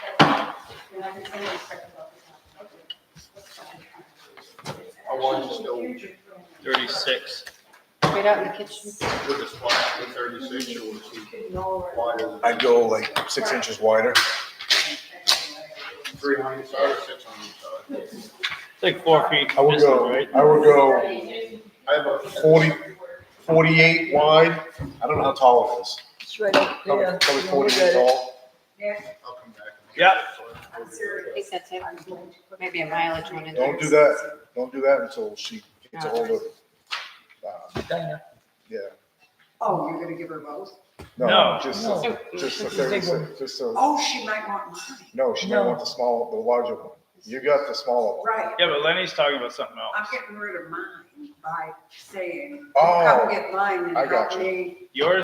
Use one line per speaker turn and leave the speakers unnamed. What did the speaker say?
I can send you a script about this one.
I wanted to know-
Thirty-six.
Right out in the kitchen.
Would the spot be thirty-six or would it be wider?
I'd go like six inches wider.
Three on each side or six on each side?
It's like four feet
I would
distance,
go,
right?
I would go
I have a.
40 48 wide. I don't know how tall it is.
It's right up
Probably,
there.
probably
Yeah,
forty
look at
years
it.
old.
I'll come back.
Yeah.
I think that's it. Maybe a mileage one. in
Don't do
there.
that. Don't do that until she gets a hold of, uh,
Diana.
yeah.
Oh, you're gonna give her both?
No.
Just,
No.
a- just a
It's a big
thirty-six, just a,
Oh, she might want mine.
no, she might
No.
want the small, the larger one. You got the smaller one.
Right,
Yeah, but Lenny's talking about something
I'm
else.
getting rid of mine by saying,
Oh.
come get mine and
I got
help
you.
me.
Yours